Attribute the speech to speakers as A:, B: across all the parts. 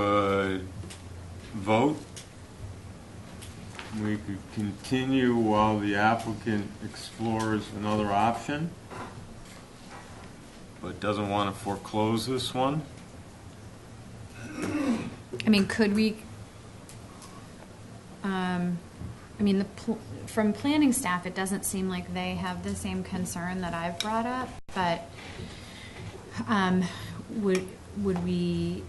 A: could vote. We could continue while the applicant explores another option, but doesn't want to foreclose this one.
B: I mean, could we, um, I mean, the, pl- from planning staff, it doesn't seem like they have the same concern that I've brought up, but, um, would, would we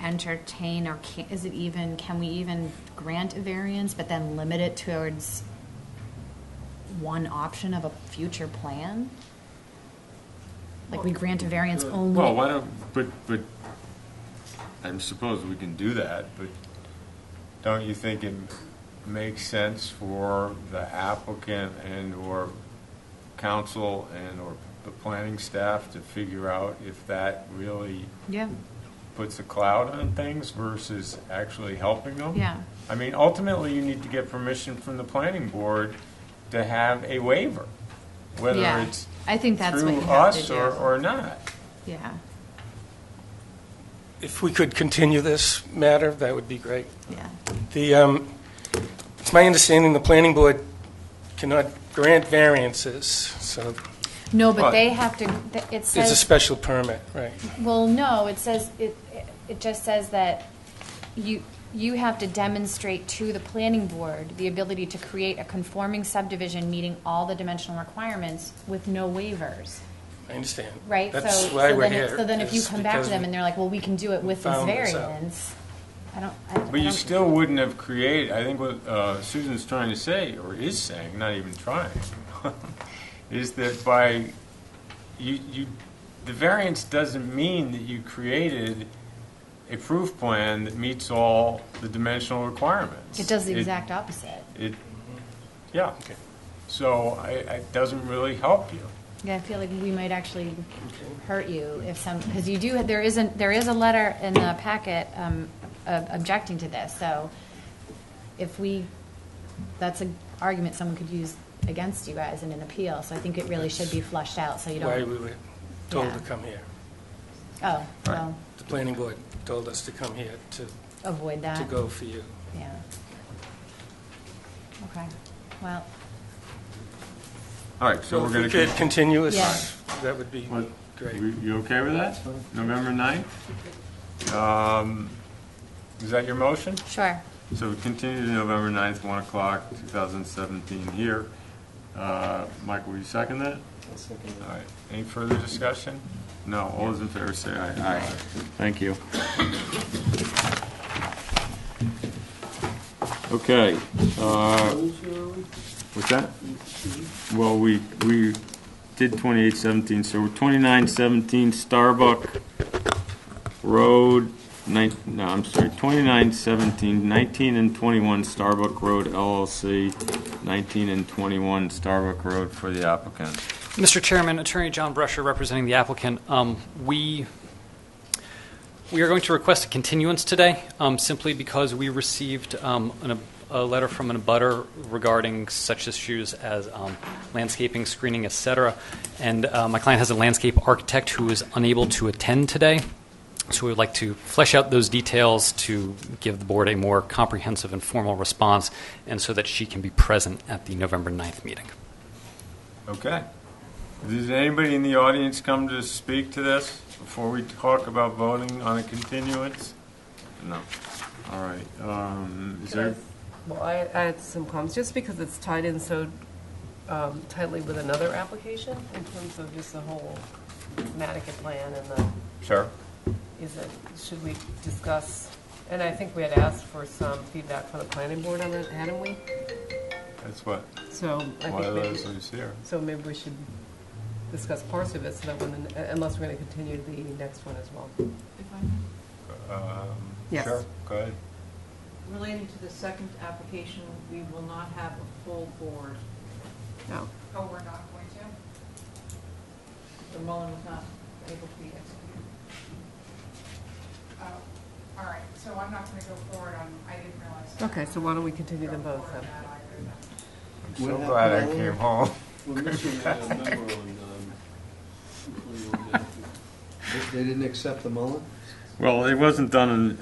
B: entertain or can, is it even, can we even grant a variance, but then limit it towards one option of a future plan? Like we grant a variance only.
A: Well, why don't, but, but, I suppose we can do that, but don't you think it makes sense for the applicant and/or council and/or the planning staff to figure out if that really
B: Yeah,
A: puts a cloud on things versus actually helping them?
B: yeah.
A: I mean, ultimately, you need to get permission from the planning board to have a waiver, whether
B: Yeah.
A: it's
B: I think that's what
A: through
B: you have to
A: us
B: do.
A: or, or not.
B: Yeah,
C: If we could continue this matter, that would be great.
B: yeah.
C: The, um, it's my understanding the planning board cannot grant variances, so
B: No, but
A: But-
B: they have to, th- it
C: it's a
B: says,
C: special permit, right?
B: well, no, it says, it, it just says that you, you have to demonstrate to the planning board the ability to create a conforming subdivision meeting all the dimensional requirements with no waivers,
C: I understand.
B: right? So-
C: That's
B: so
C: why we're
B: then it-
C: here.
B: So then if you
C: is
B: come back to
C: because
B: them and they're like, well, we can do it with this
C: found this out.
B: variance, I don't, I I don't.
A: But you still wouldn't have created, I think what uh, Susan's trying to say, or is saying, not even trying, is that by, you, you, the variance doesn't mean that you created a proof plan that meets all the dimensional requirements.
B: It does the exact opposite.
A: It, yeah.
C: Okay.
A: So I, it doesn't really help you.
B: Yeah, I feel like we might actually hurt you if some, because you do, there isn't, there is a letter in the packet um, ob- objecting to this, so if we, that's an argument someone could use against you guys in an appeal, so I think it really should be flushed out, so you
C: Why
B: don't,
C: we were told
B: Yeah.
C: to come here.
B: oh, well,
C: The planning board told us to come here to,
B: avoid
C: to
B: that,
C: go for you.
B: yeah. Okay, well,
A: All right, so we're
C: if
A: going
C: we
A: to.
C: could continue
B: Yeah.
C: this, that would be
A: What-
C: great.
A: You you okay with that? November 9th? Um, Is that your motion?
B: sure,
A: So we continue to November 9th, 1 o'clock, 2017 here. Uh, Michael, will you second that? All right, any further discussion? No, all those in favor say aye. Aye. Thank you. Okay. uh, What's that? Well, we, we did 2817, so we're 2917 Starbuck Road, nine, no, I'm sorry, 2917, 19 and 21 Starbuck Road LLC, 19 and 21 Starbuck Road for the applicant.
D: Mr. Chairman, Attorney John Brusher representing the applicant. Um, We, we are going to request a continuance today um, simply because we received um, an- a letter from an abutter regarding such issues as um, landscaping, screening, et cetera. And uh, my client has a landscape architect who is unable to attend today. So we would like to flesh out those details to give the board a more comprehensive and formal response and so that she can be present at the November 9th meeting.
A: Okay. Does anybody in the audience come to speak to this before we talk about voting on a continuance? No. All right. Um, is there,
E: Well, I I had some comments, just because it's tied in so um, tightly with another application in terms of just the whole Connecticut plan and the,
A: sure.
E: is it, should we discuss? And I think we had asked for some feedback from the planning board on that, hadn't we?
A: That's what,
E: So I
A: one
E: think
A: of
E: maybe,
A: those is here.
E: so maybe we should discuss parts of it so that when, the- unless we're going to continue the next one as well.
A: Um,
E: Yes.
A: Sure, go ahead.
F: Relating to the second application, we will not have a full board.
E: No.
F: Oh, we're not going to? The Mullen was not able to be executed.
G: Oh, all right, so I'm not gonna go forward on, I didn't realize. that.
E: Okay, so why don't we continue them
G: Go
E: both
G: forward
E: then?
G: on that either then.
A: I'm so
H: What
A: glad I
H: happened earlier?
A: came home.
H: We're missing a memo on, um, They they didn't accept the Mullen?
I: Well, it wasn't done in,